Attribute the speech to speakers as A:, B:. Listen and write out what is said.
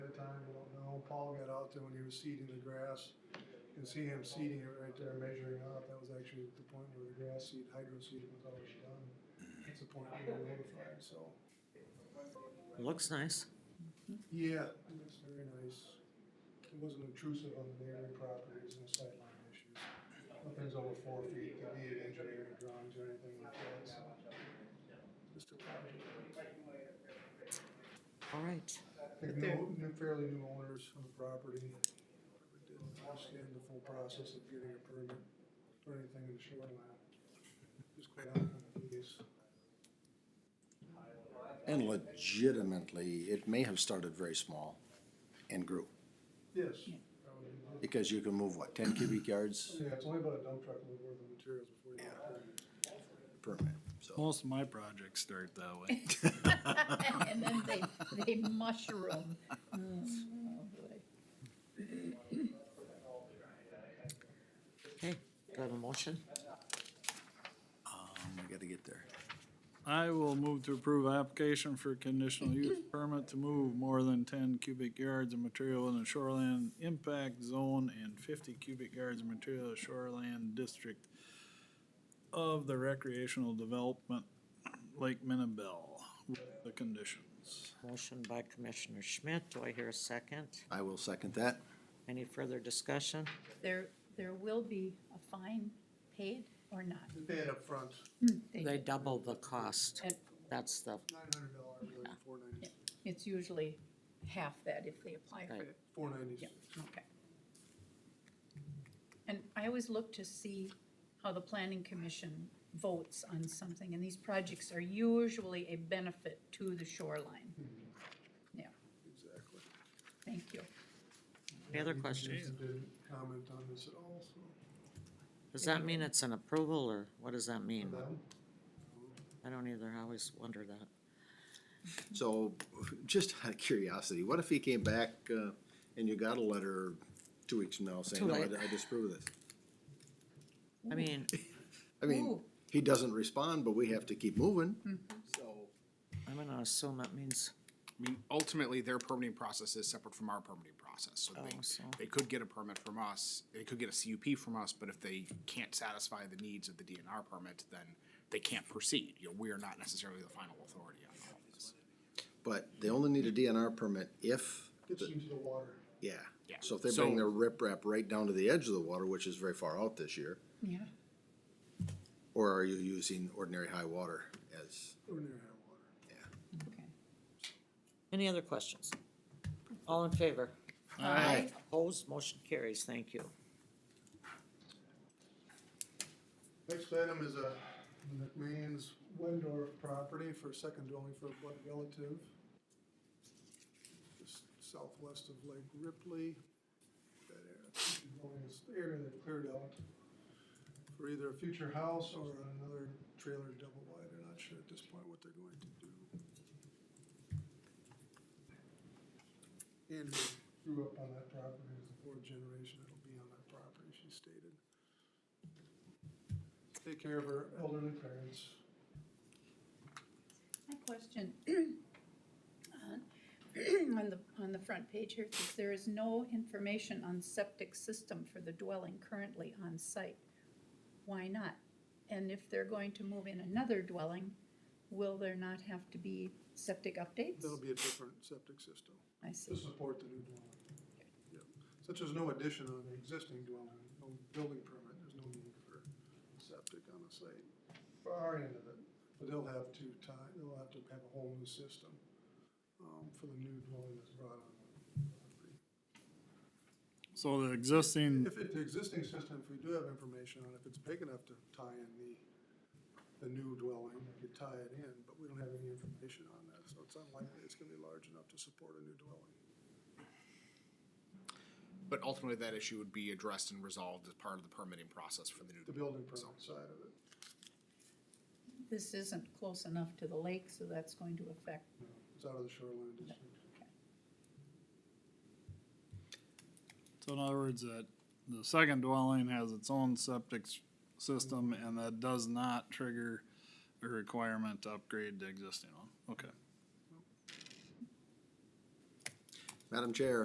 A: Paul got out there when he was seeding the grass. You can see him seeding it right there, measuring out. That was actually the point where the grass seed, hydro seeding was already done. It's the point we were notified, so.
B: Looks nice.
A: Yeah, it looks very nice. It wasn't obtrusive on the neighboring properties, no sightline issues. Nothing's over four feet, that needed engineering drawings or anything like that, so. Just a project.
B: All right.
A: I think new, new, fairly new owners of the property didn't understand the full process of getting a permit or anything in the shoreline. Just quite out of these.
C: And legitimately, it may have started very small and grew,
A: Yes. that would be good.
C: because you can move, what, ten cubic yards
A: Yeah, it's only about a dump truck load worth of materials before you get a permit.
C: per minute, so.
D: Most of my projects start that way.
E: And then they, they mushroom. Oh, boy.
B: Okay, do I have a motion?
C: Um, I gotta get there.
D: I will move to approve application for conditional use permit to move more than ten cubic yards of material in the shoreland impact zone and fifty cubic yards of material in the shoreland district of the recreational development Lake Minnabell with the conditions.
B: Motion by Commissioner Schmidt. Do I hear a second?
C: I will second that.
B: Any further discussion?
E: There, there will be a fine paid or not.
A: They pay it upfront,
E: They-
B: They double the cost.
E: and
B: That's the,
A: nine hundred dollars, really, four ninety,
E: It's usually half that if they apply for
B: Right.
E: it.
A: four ninety-six.
E: Okay. And I always look to see how the planning commission votes on something, and these projects are usually a benefit to the shoreline. Yeah,
A: Exactly.
E: thank you.
B: any other
A: Jason
B: questions?
A: Didn't comment on this at all, so.
B: Does that mean it's an approval or what does that mean?
A: Them?
B: I don't either. I always wonder that.
C: So, just out of curiosity, what if he came back, uh, and you got a letter two weeks from now saying,
B: Too
C: no, I
B: late.
C: I disapprove of this?
B: I mean,
C: I mean,
E: Ooh.
C: he doesn't respond, but we have to keep moving,
B: Hmm.
C: so.
B: I'm gonna assume that means,
F: I mean, ultimately, their permitting process is separate from our permitting process, so they,
B: Oh, so-
F: they could get a permit from us, they could get a CUP from us, but if they can't satisfy the needs of the DNR permit, then they can't proceed, you know, we are not necessarily the final authority on all of this.
C: But they only need a DNR permit if,
A: Gets into the water.
C: yeah.
F: Yeah.
C: So if they bring
F: So-
C: their riprap right down to the edge of the water, which is very far out this year,
E: Yeah,
C: Or are you using ordinary high water as,
A: Ordinary high water.
E: okay.
B: any other questions? All in favor?
C: Aye.
B: Opposed? Motion carries. Thank you.
A: Next item is a McMeans Wendorf property for second dwelling for a blood relative. Just southwest of Lake Ripley. That area, second dwelling is the area they cleared out for either a future house or another trailer double wide. They're not sure at this point what they're going to do. Andrew grew up on that property, It was the fourth generation that'll be on that property, she stated take care of her elderly parents.
E: My question, on- on the, on the front page here, it says there is no information on septic system for the dwelling currently on site. Why not? And if they're going to move in another dwelling, will there not have to be septic updates?
A: That'll be a different septic system
E: I
A: to
E: see,
A: support the new dwelling. Yep. Since there's no addition on the existing dwelling, no building permit, there's no need for septic on the site. For our end of it, but they'll have to tie, they'll have to have a whole new system, um, for the new dwelling that's brought on.
D: So the existing,
A: If it, the existing system, if we do have information on it, if it's big enough to tie in the, the new dwelling, we could tie it in, but we don't have any information on that, so it's unlikely it's gonna be large enough to support a new dwelling.
F: But ultimately, that issue would be addressed and resolved as part of the permitting process for the new.
A: The building permit side of it.
E: this isn't close enough to the lake, so that's going to affect,
A: No, It's out of the shoreline district.
D: so in other words, that the second dwelling has its own septic s- system and that does not trigger a requirement to upgrade the existing one. Okay.
C: Madam Chair,